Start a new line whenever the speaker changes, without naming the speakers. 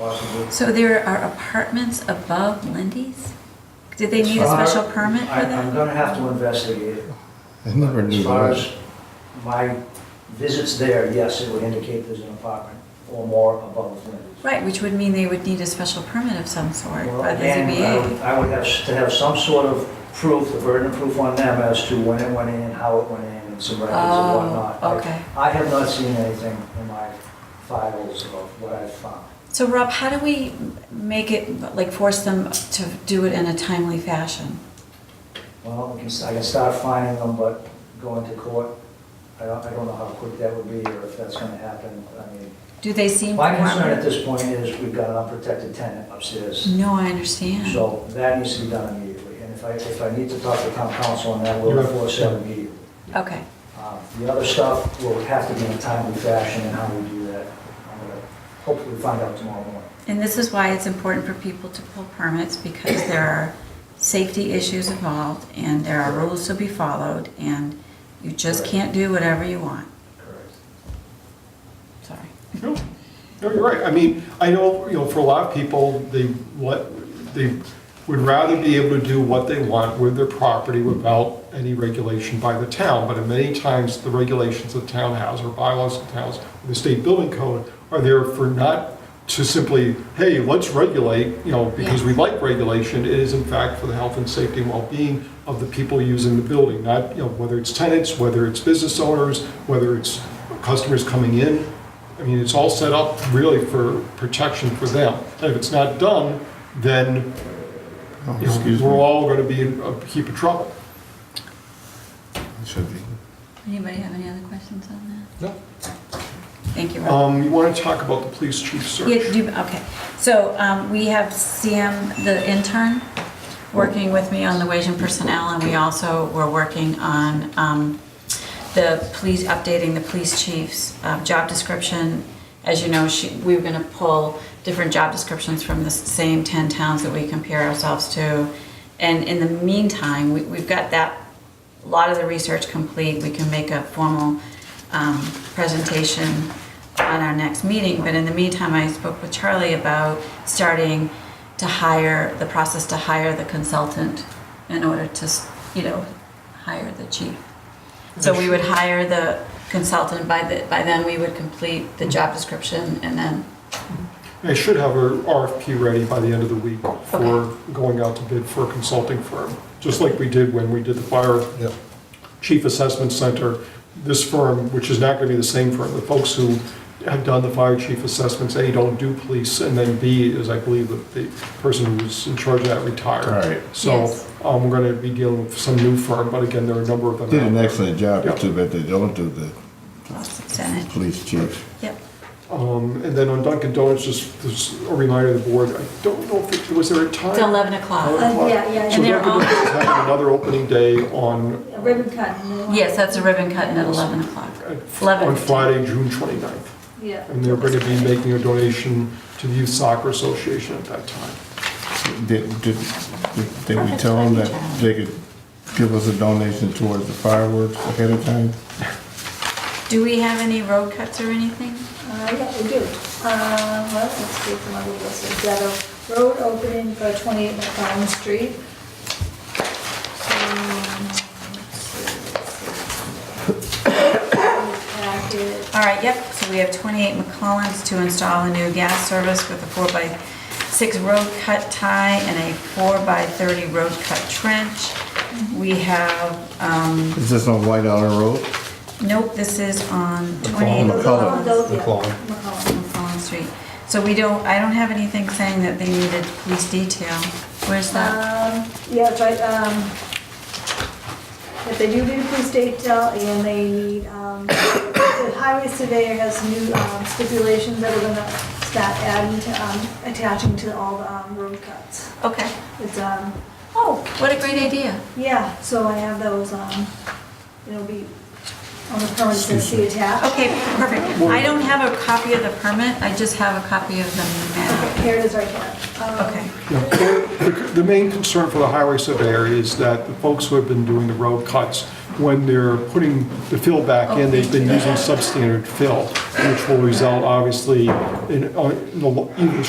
possibly.
So there are apartments above Lindy's? Did they need a special permit for
I- I'm
that?
gonna have to investigate it.
I never knew
As far
that.
as my visits there, yes, it would indicate there's an apartment or more above Lindy's.
Right, which would mean they would need a special permit of some sort
Well,
by the
again, I would-
ZBA.
I would have, s- to have some sort of proof, the burden of proof on them as to when it went in, how it went in, and some records and
Oh,
whatnot. I-
okay.
I have not seen anything in my files of what I've found.
So Rob, how do we m- make it, like force them to do it in a timely fashion?
Well, I can, I can start finding them, but going to court, I don't, I don't know how quick that would be or if that's gonna happen. I mean,
Do they seem?
my concern at
cooperative?
this point is we've got an unprotected tenant upstairs.
No, I understand.
So that needs to be done immediately. And if I, if I need to talk to town council on that, we'll force that immediately.
Okay,
Um, The other stuff will have to be in a timely fashion and how we do that. I'm gonna hopefully find out tomorrow morning.
and this is why it's important for people to pull permits because there are safety issues involved and there are rules to be followed and you just
Correct.
can't do whatever you want.
Correct.
Sorry.
No, no, you're right. I mean, I know, you know, for a lot of people, they, what, they would rather be able to do what they want with their property without any regulation by the town. But in many times, the regulations of the town has or bylaws of towns, the state building code are there for not to simply, hey, let's regulate, you know, because we like regulation. It is in fact for the health and safety and well-being of the people using the building, not, you know, whether it's tenants, whether it's business owners, whether it's customers coming in, I mean, it's all set up really for protection for them. And if it's not done, then
Oh,
you know,
Excuse
we're
me.
all going to be in a heap of trouble.
It should be.
Anybody have any other questions on
No.
that? Thank you, Rob.
Um, you want to talk about the police chief search?
Yeah, do, okay, so, um, we have Sam, the intern, working with me on the wage and personnel, and we also were working on, um, the police, updating the police chief's, uh, job description. As you know, she, we were gonna pull different job descriptions from the same ten towns that we compare ourselves to. And in the meantime, we, we've got that a lot of the research complete, we can make a formal um, presentation on our next meeting, but in the meantime, I spoke with Charlie about starting to hire, the process to hire the consultant in order to, s- you know, hire the chief. So we would hire the consultant, by the, by then we would complete the job description and then,
I should have a RFP ready by the end of the week for
Okay.
going out to bid for a consulting firm, just like we did when we did the fire
Yep.
chief assessment center. This firm, which is not going to be the same firm, the folks who have done the fire chief assessments, A, don't do police, and then B, is I believe that the person who's in charge of that retired.
All right.
So
Yes.
um, we're going to be dealing with some new firm, but again, there are a number of them.
Did an
out
excellent job,
Yep.
it's too bad they don't do the
Senate,
police chief.
yep.
there. Um, And then on Dunkin' Donuts, just just a reminder to the board, I don't know if, it was there a time?
It's 11 o'clock.
Uh, yeah, yeah,
So
And they're
Dunkin' Donuts is having another opening day on,
A ribbon cut. you know?
Yes, that's a ribbon cutting at 11 o'clock. Eleven
on
fifteen.
Friday, June 29th.
Yeah.
And they're going to be making a donation to the Youth Soccer Association at that time.
Did, did, did- did we tell them that they could give us a donation towards the fireworks ahead of time?
Do we have any road cuts or anything?
Uh, yeah, we do. Uh, well, let's see if my little list is that a road opening for 28 McCollum Street. Um, let's see, let's see. Packet.
All right, yep, so we have 28 McCollins to install a new gas service with a 4x6 road cut tie and a 4x30 road cut trench. We have, um,
Is this on White Island Road?
nope, this is on 28
McCollum.
Oh,
McCollins.
those, yeah,
McCollum.
McCollum.
McCollins Street. So we don't, I don't have anything saying that they needed police detail. Where's that?
Um, yeah, it's right, um, if they do need a police detail and they need, um, the highway surveyor has new um, stipulations that we're gonna start adding to, um, attaching to all the, um, road cuts.
Uh, Okay.
It's, um,
Oh, what a great idea.
yeah, so I have those, um, it'll be on the permits that
Excuse me.
see attached.
Okay, perfect. I don't have a copy of the permit, I just have a copy of the map.
Okay, Here it is right here. Um,
Okay.
You know, The the main concern for the highway surveyor is that the folks who have been doing the road cuts, when they're putting the fill back in, they've been using substandard fill, which will result obviously in, uh, in the lo- in the